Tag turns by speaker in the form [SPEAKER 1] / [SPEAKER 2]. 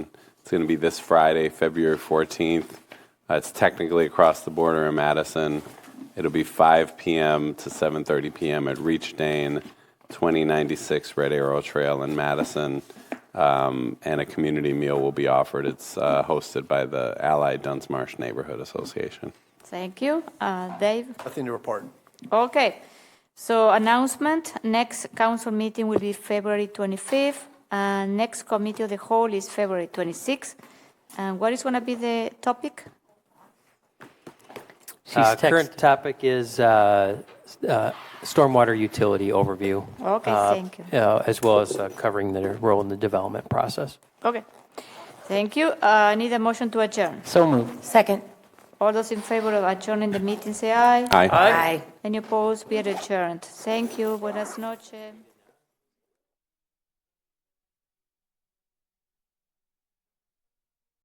[SPEAKER 1] going to be this Friday, February 14th. Uh, It's technically across the border in Madison. It'll be 5 PM to 7:30 PM at Reach Dane, 2096 Red Arrow Trail in Madison. Um, And a community meal will be offered. It's uh, hosted by the Allied Dunsmarsh Neighborhood Association.
[SPEAKER 2] Thank you. Uh, Dave?
[SPEAKER 3] Nothing to report.
[SPEAKER 2] Okay. So announcement, next council meeting will be February 25th. And next committee of the whole is February 26th. And what is going to be the topic?
[SPEAKER 4] Uh,
[SPEAKER 5] She's
[SPEAKER 4] Current
[SPEAKER 5] text-
[SPEAKER 4] topic is uh, s- uh, stormwater utility overview.
[SPEAKER 2] Oh, Okay,
[SPEAKER 4] uh,
[SPEAKER 2] thank you.
[SPEAKER 4] uh, As well as uh, covering their role in the development process.
[SPEAKER 2] Okay. Thank you. Uh, I need a motion to adjourn.
[SPEAKER 5] So moved.
[SPEAKER 6] Second.
[SPEAKER 2] All those in favor of adjourning the meeting, say aye.
[SPEAKER 1] Aye.
[SPEAKER 6] Aye.
[SPEAKER 2] Any opposed, be adjourned. Thank you. Buenas noches.